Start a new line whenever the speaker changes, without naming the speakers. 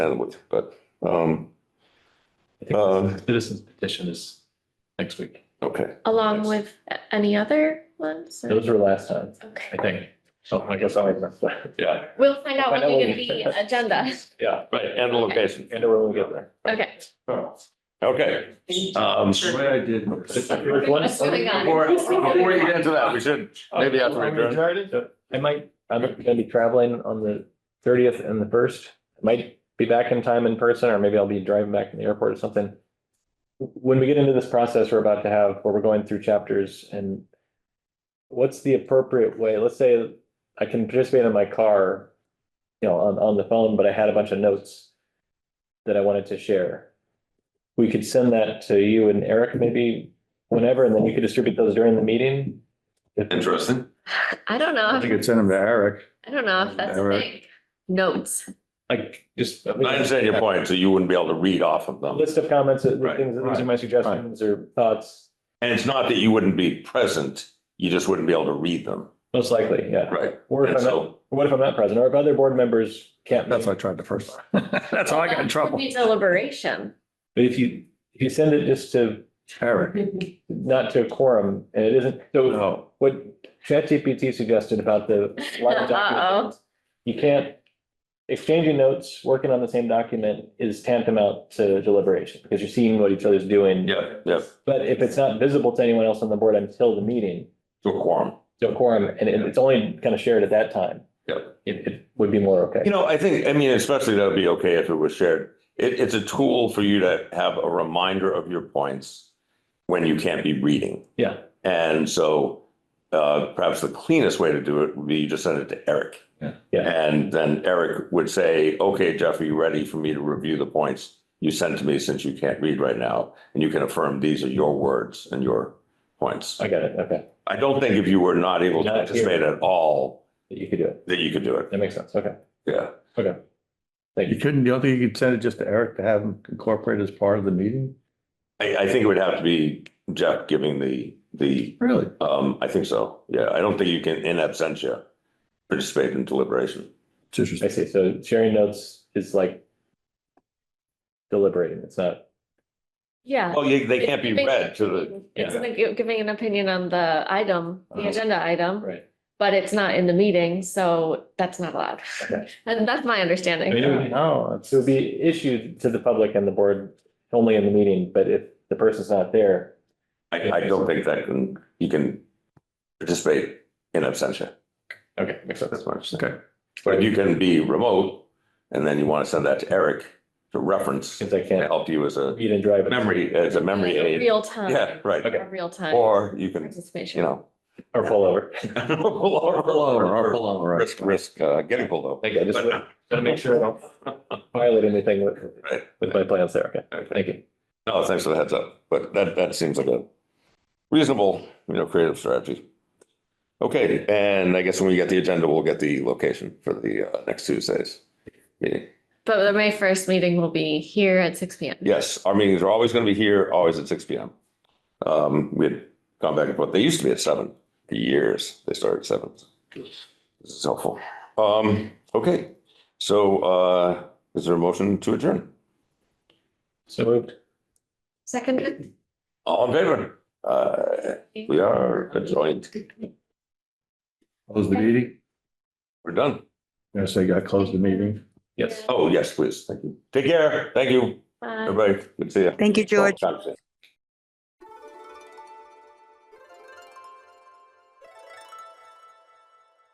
and with, but, um,
I think
Um,
Citizens petition is next week.
okay.
Along
Yes.
with a- any other ones? or-
Those were last time, I
Okay,
think. So I guess I, yeah,
we'll find out
Find out
when we
when
get
we-
the agenda.
yeah,
Right, and the location.
and we're gonna get there.
Okay.
Okay. Um,
What I did.
What's going on?
before, before you get into that, we should, maybe after Uh, we adjourn.
I might, I'm gonna be traveling on the thirtieth and the first. Might be back in time in person, or maybe I'll be driving back from the airport or something. When we get into this process, we're about to have, where we're going through chapters and what's the appropriate way? Let's say I can participate in my car, you know, on, on the phone, but I had a bunch of notes that I wanted to share. We could send that to you and Eric maybe whenever, and then you could distribute those during the meeting. If-
Interesting.
I don't know.
I
if-
think it's send them to Eric.
I don't know if that's a
Alright.
thing. Notes.
Like, just.
I understand your point, so you wouldn't be able to read off of them.
List of comments, uh,
Right,
things, these are my suggestions or thoughts,
And it's not that you wouldn't be present, you just wouldn't be able to read them.
most likely, yeah.
Right.
Or if
And
I'm not,
so,
what if I'm not present, or if other board members can't.
That's
make-
what I tried the first time. That's how I got in trouble.
Be Deliberation.
But if you, if you send it just to,
Eric.
not to a quorum, and it isn't, so
No.
what ChatGPT suggested about the. live document, You can't, exchanging notes, working on the same document is tantamount to deliberation, because you're seeing what each other's doing.
Yeah, yeah,
But if it's not visible to anyone else on the board until the meeting,
to a quorum.
to a quorum, and it- it's only kind of shared at that time.
Yep.
It, it would be more okay.
You know, I think, I mean, especially that would be okay if it was shared. It, it's a tool for you to have a reminder of your points when you can't be reading.
Yeah.
And so uh, perhaps the cleanest way to do it would be you just send it to Eric.
Yeah.
Yeah.
And then Eric would say, okay, Jeff, are you ready for me to review the points you sent to me since you can't read right now? And you can affirm these are your words and your points.
I got it, okay,
I don't think if you were not able to
Not here.
participate at all,
that you could do it,
that you could do it.
that makes sense, okay,
Yeah.
okay. Thank
You
you,
couldn't, you don't think you could send it just to Eric to have him incorporate as part of the meeting?
I, I think it would have to be Jeff giving the, the,
Really?
um, I think so. Yeah, I don't think you can in absentia participate in deliberation.
It's
I
interesting.
see, so sharing notes is like deliberating, it's not,
Yeah.
Oh, yeah, they can't be read to the,
It's
Yeah.
like you're giving an opinion on the item, the
Uh-huh.
agenda item,
right,
but it's not in the meeting, so that's not allowed.
Okay.
And that's my understanding.
it would be- no, it's- it would be issued to the public and the board only in the meeting, but if the person's not there,
I, I don't think that can, you can participate in absentia.
okay, makes sense.
That's my understanding.
Okay.
But you can be remote and then you want to send that to Eric to reference to
Since I can't
help you as a
read and drive. it.
memory, as a memory
Like a
aid.
Real time.
Yeah, right.
Okay.
A Real time
Or you can, you
participation.
know.
Or pull over.
Or pull over, or pull over. Risk, risk, uh, getting pulled over.
Okay, I just wanted to make sure I don't violate anything with,
Right.
with my plans there, okay,
Okay.
thank you.
No, thanks for the heads up, but that, that seems like a reasonable, you know, creative strategy. Okay, and I guess when we get the agenda, we'll get the location for the uh, next Tuesday's meeting.
But the May first meeting will be here at six P M.
Yes, our meetings are always going to be here, always at six P M. Um, we had gone back and forth. They used to be at seven for years. They started at seven. This is helpful. Um, okay, so, uh, is there a motion to adjourn?
So moved.
Second.
All in favor? Uh, we are adjourned.
Close the meeting?
We're done.
I say, got to close the meeting.
Yes.
Oh, yes, please. Thank you. Take care. Thank you,
Bye.
everybody. Good to see you.
Thank you, George.
Conference.